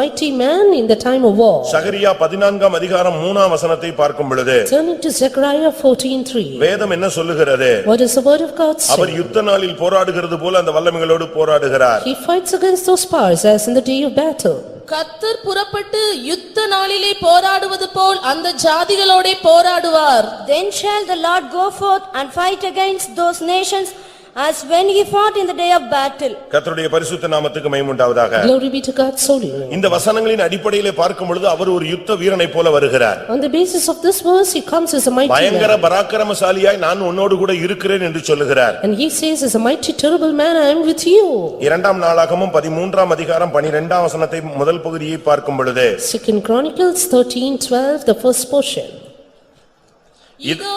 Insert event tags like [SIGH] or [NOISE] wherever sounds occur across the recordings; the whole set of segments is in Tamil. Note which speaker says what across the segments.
Speaker 1: mighty man in the time of war.
Speaker 2: சகரியா பதினான்காம் அதிகாரம் மூணாம் வசனத்தை பார்க்கும் பொழுது
Speaker 1: Turning to Zechariah fourteen three,
Speaker 2: வேதம் என்ன சொல்லுகிறது
Speaker 1: what is the word of God
Speaker 2: our
Speaker 1: say?
Speaker 2: யுத்த நாளில் போராடுகிறது போல அந்த வல்லமைகளோடு போராடுகிறார்
Speaker 1: He fights against those powers as in the day of battle.
Speaker 3: கத்தர் புறப்பட்டு யுத்த நாளிலே போராடுவது போல் அந்த ஜாதிகளோடே போராடுவார்
Speaker 4: Then shall the Lord go forth and fight against those nations as when he fought in the day of battle.
Speaker 2: கர்த்தருடைய பரிசுத்த நாமத்துக்கு மகிமுண்டாவதாக
Speaker 1: Glory be to God's holy name.
Speaker 2: இந்த வசனங்களின் அடிப்படையிலே பார்க்கும் பொழுது அவர் ஒரு யுத்த வீரனைப் போல வருகிறார்
Speaker 1: On the basis of this verse, he comes as a mighty
Speaker 2: பயங்கர
Speaker 1: man.
Speaker 2: பராக்கிரமசாலியாய் நான் உன்னோடு கூட இருக்கிறேன் என்று சொல்லுகிறார்
Speaker 1: And he says, "As a mighty terrible man, I am with you."
Speaker 2: இரண்டாம் நாளாகமும் பதிமூன்றாம் அதிகாரம் பனிரெண்டாம் வசனத்தை முதல் பகுதியை பார்க்கும் பொழுது
Speaker 1: Second Chronicles thirteen twelve, the first portion.
Speaker 3: இதோ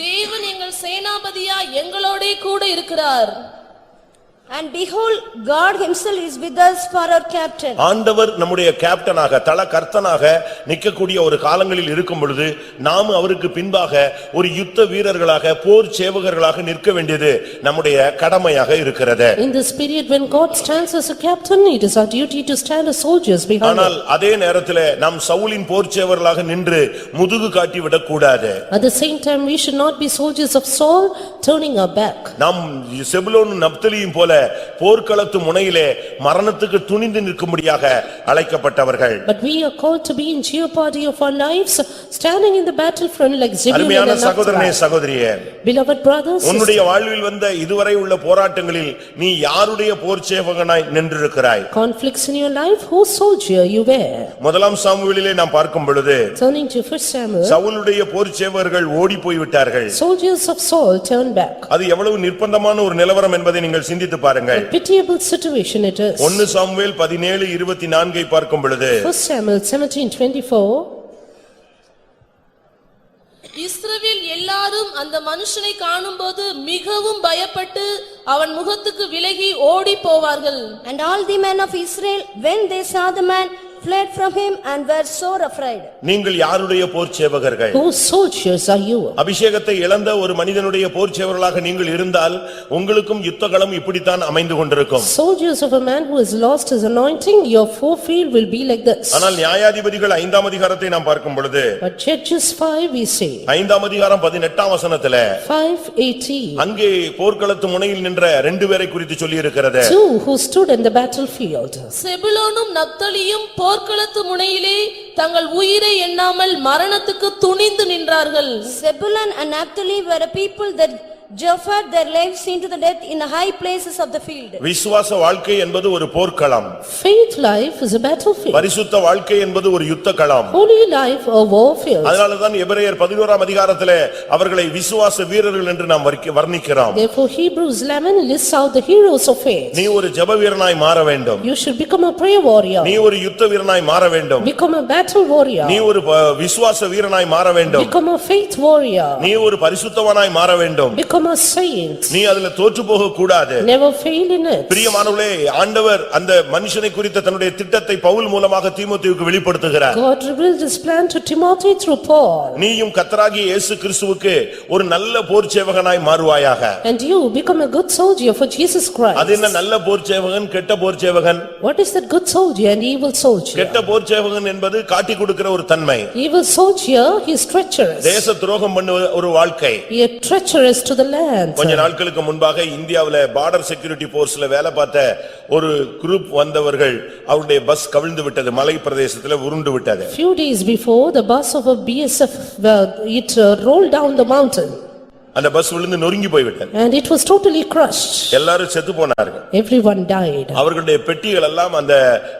Speaker 3: தேவன் எங்கள் சேனாபதியா எங்களோடே கூட இருக்கிறார்
Speaker 4: And behold, God himself is with us for our captain.
Speaker 2: ஆண்டவர் நம்முடைய கேப்டனாக தல கர்த்தனாக நிற்கக்கூடிய ஒரு காலங்களில் இருக்கும் பொழுது நாம் அவருக்கு பின்பாக ஒரு யுத்த வீரர்களாக போர் சேவகர்களாக நிற்க வேண்டியது நம்முடைய கடமையாக இருக்கிறது
Speaker 1: In this period when God stands as a captain, it is our duty to stand as soldiers behind him.
Speaker 2: ஆனால் அதே நேரத்திலே நாம் சவுலின் போர் சேவகர்களாக நின்று முதுகு காட்டி விடக்கூடாது
Speaker 1: At the same time, we should not be soldiers of Saul, turning our back.
Speaker 2: நாம் செபுலோன் நப்தலியும் போல போர்க்களத்து முனையிலே மரணத்துக்கு துணிந்து நிற்கும்படியாக அழைக்கப்பட்டவர்கள்
Speaker 1: But we are called to be in jeopardy of our lives, standing in the battlefront like Zebulun
Speaker 2: அருமையான
Speaker 1: and
Speaker 2: சகோதரனே
Speaker 1: Naphtali.
Speaker 2: சகோதரியே
Speaker 1: Beloved brothers, sisters,
Speaker 2: உன்னுடைய வாழ்வில் வந்த இதுவரை உள்ள போராட்டங்களில் நீ யாருடைய போர் சேவகனாய் நின்றிருக்கிறாய்
Speaker 1: conflicts in your life, whose soldier you were?
Speaker 2: முதலாம் சாமுவேலிலே நாம் பார்க்கும் பொழுது
Speaker 1: Turning to first Samuel,
Speaker 2: சவுலுடைய போர் சேவகர்கள் ஓடி போய்விட்டார்கள்
Speaker 1: soldiers of Saul turn back.
Speaker 2: அது எவ்வளவு நிர்பந்தமான ஒரு நிலவரம் என்பதை நீங்கள் சிந்தித்து பாருங்கள்
Speaker 1: Pitiable situation it is.
Speaker 2: ஒன்னு சாமுவேல் பதினேழு இருபத்தி நான்கை பார்க்கும் பொழுது
Speaker 1: First Samuel seventeen twenty-four,
Speaker 3: இஸ்ரவேல் எல்லாரும் அந்த மனுஷனை காணும்போது மிகவும் பயப்பட்டு அவன் முகத்துக்கு விலகி ஓடிப் போவார்கள்
Speaker 4: And all the men of Israel, when they saw the man, fled from him and were sore afraid.
Speaker 2: நீங்கள் யாருடைய போர் சேவகர்கள்
Speaker 1: whose soldiers are you?
Speaker 2: அபிஷேகத்தை இழந்த ஒரு மனிதனுடைய போர்ச்சேவர்களாக நீங்கள் இருந்தால் உங்களுக்கும் யுத்தகளம் இப்படித்தான் அமைந்து கொண்டிருக்கும்
Speaker 1: Soldiers of a man who has lost his anointing, your forefield will be like this.
Speaker 2: ஆனால் நியாயாதிபதிகள் ஐந்தாம் அதிகாரத்தை நாம் பார்க்கும் பொழுது
Speaker 1: But Judges five we say,
Speaker 2: ஐந்தாம் அதிகாரம் பதினெட்டாம் வசனத்துல
Speaker 1: five eighteen,
Speaker 2: அங்கே போர்க்களத்து முனையில் நின்ற ரெண்டு பேரை குறித்து சொல்லியிருக்கிறது
Speaker 1: [LAUGHS] two who stood in the battlefield.
Speaker 3: செபுலோனும் நப்தலியும் போர்க்களத்து முனையிலே தங்கள் உயிரை எண்ணாமல் மரணத்துக்கு துணிந்து நின்றார்கள்
Speaker 4: Zebulun and Naphtali were a people that jaffered their lives into the death in the high places of the field.
Speaker 2: விசுவாச வாழ்க்கை என்பது ஒரு போர்க்களம்
Speaker 1: Faith life is a battlefield,
Speaker 2: பரிசுத்த வாழ்க்கை என்பது ஒரு யுத்த களம்
Speaker 1: holy life a warfield.
Speaker 2: அதனாலதான் எபிரேயர் பதினோராம் அதிகாரத்திலே அவர்களை விசுவாச வீரர்கள் என்று நாம் வர்க்க- வர்ணிக்கிறோம்
Speaker 1: Therefore Hebrews eleven lists out the heroes of faith.
Speaker 2: நீ ஒரு ஜெப வீரனாய் மாற வேண்டும்
Speaker 1: You should become a prayer warrior,
Speaker 2: நீ ஒரு யுத்த வீரனாய் மாற வேண்டும்
Speaker 1: become a battle warrior,
Speaker 2: நீ ஒரு ப- விசுவாச வீரனாய் மாற வேண்டும்
Speaker 1: become a faith warrior,
Speaker 2: நீ ஒரு பரிசுத்தவனாய் மாற வேண்டும்
Speaker 1: become a saint,
Speaker 2: நீ அதுல தோற்று போக கூடாது
Speaker 1: never fail in it.
Speaker 2: பிரியமானவர்களே ஆண்டவர் அந்த மனுஷனை குறித்த தன்னுடைய திட்டத்தை பவுல் மூலமாக தீமோத்தேயுக்கு வெளிப்படுத்துகிறார்
Speaker 1: God revealed his plan to Timothy through Paul,
Speaker 2: நீயும் கத்தராகிய இயேசு கிறிஸ்துவுக்கு ஒரு நல்ல போர் சேவகனாய் மாறுவாயாக
Speaker 1: and you become a good soldier for Jesus
Speaker 2: அது
Speaker 1: Christ.
Speaker 2: என்ன நல்ல போர் சேவகன் கெட்ட போர் சேவகன்
Speaker 1: What is that good soldier and evil soldier?
Speaker 2: கெட்ட போர் சேவகன் என்பது காட்டி கொடுக்கிற ஒரு தன்மை
Speaker 1: Evil soldier, he is treacherous.
Speaker 2: தேச துரோகம் பண்ணுவ ஒரு வாழ்க்கை
Speaker 1: He is treacherous to the land.
Speaker 2: கொஞ்ச நாட்களுக்கு முன்பாக இந்தியாவுல பார்டர் செக்யூரிட்டி போர்ஸ்ல வேலை பார்த்த ஒரு குரூப் வந்தவர்கள் அவருடைய பஸ் கவிழ்ந்து விட்டது மலை பிரதேசத்துல உருண்டு விட்டது
Speaker 1: Few days before, the bus of a BSF, well, it uh, rolled down the mountain
Speaker 2: அந்த பஸ் விழுந்து நொறுங்கி போய்விட்டது
Speaker 1: and it was totally crushed.
Speaker 2: எல்லாரும் செத்து போனார்கள்
Speaker 1: Everyone died.
Speaker 2: அவர்களுடைய பெட்டிகள் எல்லாம் அந்த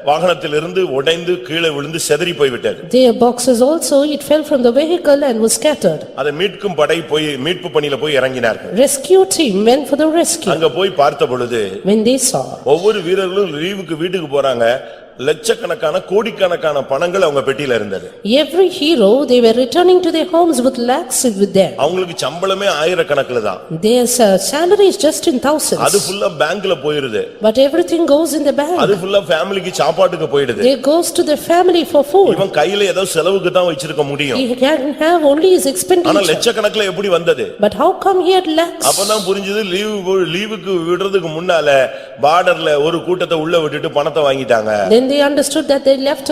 Speaker 2: வாகனத்திலிருந்து உடைந்து கீழே விழுந்து செதறி போய்விட்டது
Speaker 1: Their boxes also, it fell from the vehicle and was scattered.
Speaker 2: அதை மீட்கும் படை போய் மீட்பு பணியில போய் இறங்கினார்கள்
Speaker 1: Rescue team went for the rescue.
Speaker 2: அங்க போய் பார்த்த பொழுது
Speaker 1: When they saw,
Speaker 2: ஒவ்வொரு வீரர்களும் லீவுக்கு வீட்டுக்கு போறாங்க லட்சக்கணக்கான கோடிக்கணக்கான பணங்கள் அவங்க பெட்டியில இருந்தது
Speaker 1: every hero, they were returning to their homes with lakhs with them.
Speaker 2: அவங்களுக்கு சம்பளமே ஆயிரக்கணக்கில் தான்
Speaker 1: Their sa- salary is just in
Speaker 2: அது
Speaker 1: thousands,
Speaker 2: ஃபுல்லா பேங்க்ல போயிருது
Speaker 1: but everything goes in the bank.
Speaker 2: அது ஃபுல்லா ஃபேமிலிக்கு சாப்பாட்டுக்கு போயிடுது
Speaker 1: They goes to their family for food.
Speaker 2: இவன் கையில ஏதோ செலவுக்கு தான் வச்சிருக்க முடியும்
Speaker 1: He can have only his
Speaker 2: ஆனா
Speaker 1: expenditure.
Speaker 2: லட்சக்கணக்குல எப்படி வந்தது
Speaker 1: But how come he had lacks?
Speaker 2: அப்பதான் புரிஞ்சது லீவு லீவுக்கு விடுறதுக்கு முன்னால பார்டர்ல ஒரு கூட்டத்தை உள்ள விட்டுட்டு பணத்தை வாங்கிட்டாங்க
Speaker 1: Then they understood that they left